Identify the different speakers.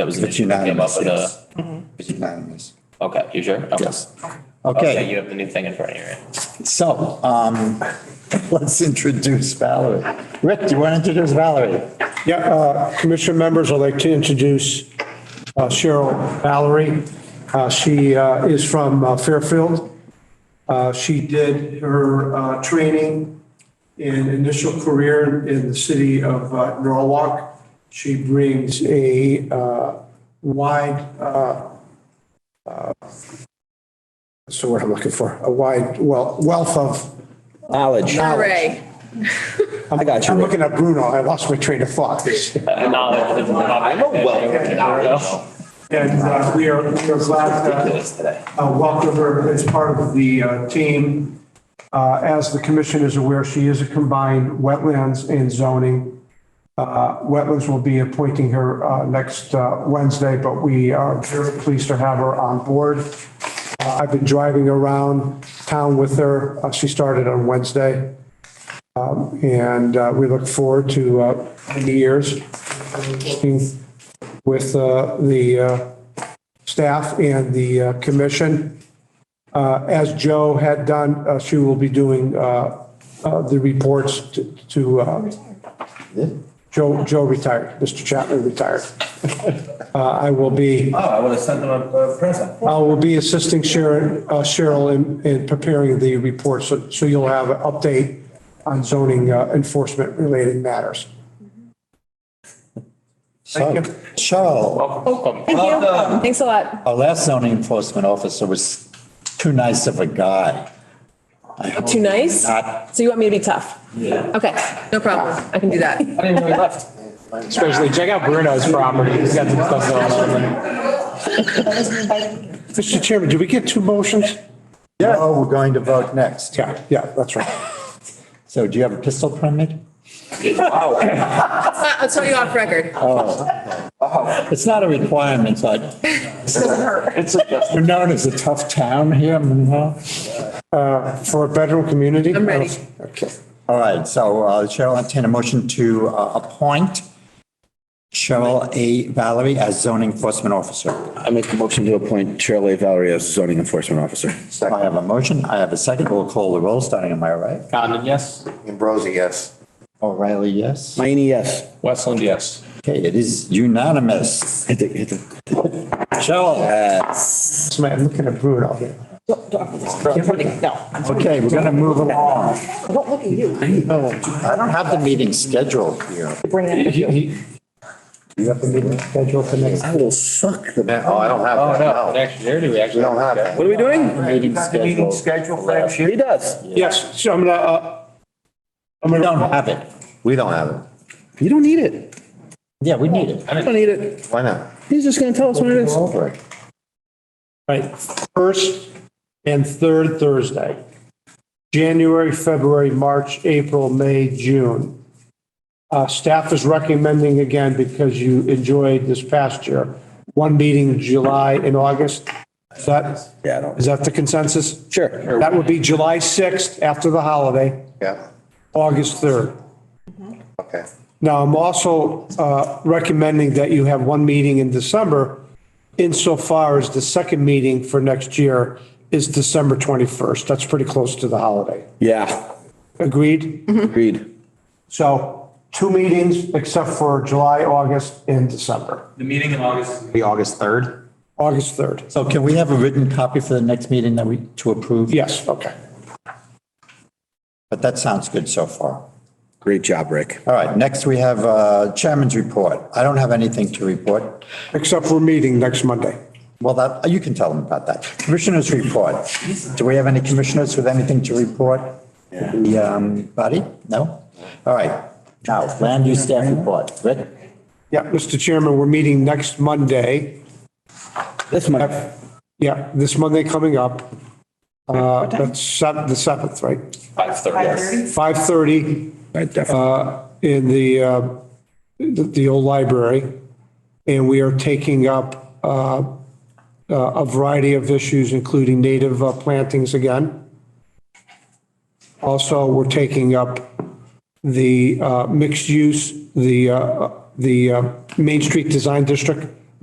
Speaker 1: That was an
Speaker 2: It's
Speaker 1: issue that came up
Speaker 2: unanimous,
Speaker 1: with
Speaker 2: yes.
Speaker 1: a,
Speaker 2: It's unanimous.
Speaker 1: okay, you sure? Okay.
Speaker 2: Yes.
Speaker 1: Okay,
Speaker 2: Okay,
Speaker 1: you have the new thing in front of you, right?
Speaker 2: so um, let's introduce Valerie. Rick, do you want to introduce Valerie?
Speaker 3: Yeah, uh, commission members, I'd like to introduce uh, Cheryl Valerie. Uh, She uh, is from uh, Fairfield. Uh, She did her uh, training and initial career in the city of uh, Norwalk. She brings a uh, wide, uh, uh, what's the word I'm looking for? A wide wel- wealth of
Speaker 4: Knowledge.
Speaker 5: Hooray.
Speaker 4: I got you,
Speaker 3: I'm
Speaker 4: Rick.
Speaker 3: looking at Bruno. I lost my train of thought.
Speaker 1: Uh, knowledge is-
Speaker 4: I'm a welcome.
Speaker 3: And uh, we are, we are glad to
Speaker 1: Ridiculous today.
Speaker 3: uh, welcome her as part of the uh, team. Uh, As the commission is aware, she is a combined wetlands and zoning. Uh, Wetlands will be appointing her uh, next uh, Wednesday, but we are very pleased to have her on board. Uh, I've been driving around town with her. Uh, She started on Wednesday. Um, And uh, we look forward to uh, many years working with uh, the uh, staff and the uh, commission. Uh, As Joe had done, uh, she will be doing uh, uh, the reports to- to, uh, Joe, Joe retired, Mr. Chapman retired. Uh, I will be,
Speaker 1: Oh, I would have sent them a- a present.
Speaker 3: I will be assisting Sharon- uh, Cheryl in- in preparing the reports, so so you'll have an update on zoning uh, enforcement related matters.
Speaker 2: So, Cheryl,
Speaker 1: Welcome.
Speaker 5: Thank you. Thanks a lot.
Speaker 2: our last zoning enforcement officer was too nice of a guy.
Speaker 5: Too nice?
Speaker 2: Not-
Speaker 5: So you want me to be tough? Yeah. Okay, no problem. I can do that.
Speaker 1: I didn't really left.
Speaker 6: Especially check out Bruno's property. He's got some stuff going on there.
Speaker 3: Mr. Chairman, did we get two motions?
Speaker 2: Yeah. Oh, we're going to vote next.
Speaker 3: Yeah, yeah, that's right.
Speaker 2: So do you have a pistol permit?
Speaker 5: Uh, I'll tell you off record.
Speaker 2: It's not a requirement, but. We're known as a tough town here, mm-hmm. Monroe.
Speaker 3: uh, For a bedroom community?
Speaker 5: I'm ready.
Speaker 3: Okay.
Speaker 2: All right, so uh, Chair will entertain a motion to uh, appoint Cheryl A. Valerie as zoning enforcement officer.
Speaker 4: I make a motion to appoint Cheryl A. Valerie as zoning enforcement officer.
Speaker 2: I have a motion, I have a second, we'll call the roll, starting on my right.
Speaker 6: Condon, yes.
Speaker 7: Ambrosi, yes.
Speaker 2: O'Reilly, yes.
Speaker 4: Mayini, yes.
Speaker 6: Westland, yes.
Speaker 2: Okay, it is unanimous.
Speaker 4: Hit the, hit the.
Speaker 2: Cheryl,
Speaker 3: This man, I'm looking at Bruno here.
Speaker 2: okay, we're going to move along. Don't look at you. I don't have the meeting scheduled here. You have the meeting scheduled for next?
Speaker 4: I will suck the.
Speaker 7: Oh, I don't have that, no.
Speaker 6: Actually, there do we actually?
Speaker 7: We don't have that.
Speaker 4: What are we doing?
Speaker 2: Meeting scheduled.
Speaker 4: He does.
Speaker 3: Yes, so I'm gonna, uh,
Speaker 2: We don't have it.
Speaker 7: We don't have it.
Speaker 4: You don't need it.
Speaker 2: Yeah, we need it.
Speaker 4: You don't need it.
Speaker 7: Why not?
Speaker 4: He's just gonna tell us when it is.
Speaker 7: Over it.
Speaker 3: right, first and third Thursday. January, February, March, April, May, June. Uh, staff is recommending again, because you enjoyed this past year, one meeting in July and August. Is that,
Speaker 4: Yeah, I don't.
Speaker 3: is that the consensus?
Speaker 4: Sure.
Speaker 3: That would be July 6th after the holiday,
Speaker 7: Yeah,
Speaker 3: August 3rd.
Speaker 7: okay.
Speaker 3: Now, I'm also uh, recommending that you have one meeting in December insofar as the second meeting for next year is December 21st. That's pretty close to the holiday.
Speaker 4: Yeah,
Speaker 3: Agreed?
Speaker 4: Mm-hmm. agreed.
Speaker 3: So two meetings except for July, August, and December,
Speaker 8: The meeting in August.
Speaker 6: Be August 3rd.
Speaker 3: August 3rd.
Speaker 2: So can we have a written copy for the next meeting that we, to approve?
Speaker 3: Yes, okay.
Speaker 2: But that sounds good so far.
Speaker 4: Great job, Rick.
Speaker 2: All right, next we have uh, Chairman's report. I don't have anything to report.
Speaker 3: Except for meeting next Monday.
Speaker 2: Well, that, you can tell them about that. Commissioners' report. Do we have any commissioners with anything to report? The um, body? No? All right. Now, land use staff report. Rick?
Speaker 3: Yeah, Mr. Chairman, we're meeting next Monday.
Speaker 4: This month.
Speaker 3: Yeah, this Monday coming up. Uh, That's sev- the 7th, right?
Speaker 1: Five thirty. Yes.
Speaker 3: 5:30
Speaker 4: I definitely.
Speaker 3: in the, uh, the the old library. And we are taking up uh, uh, a variety of issues, including native uh, plantings again. Also, we're taking up the uh, mixed use, the, uh, the uh, Main Street Design District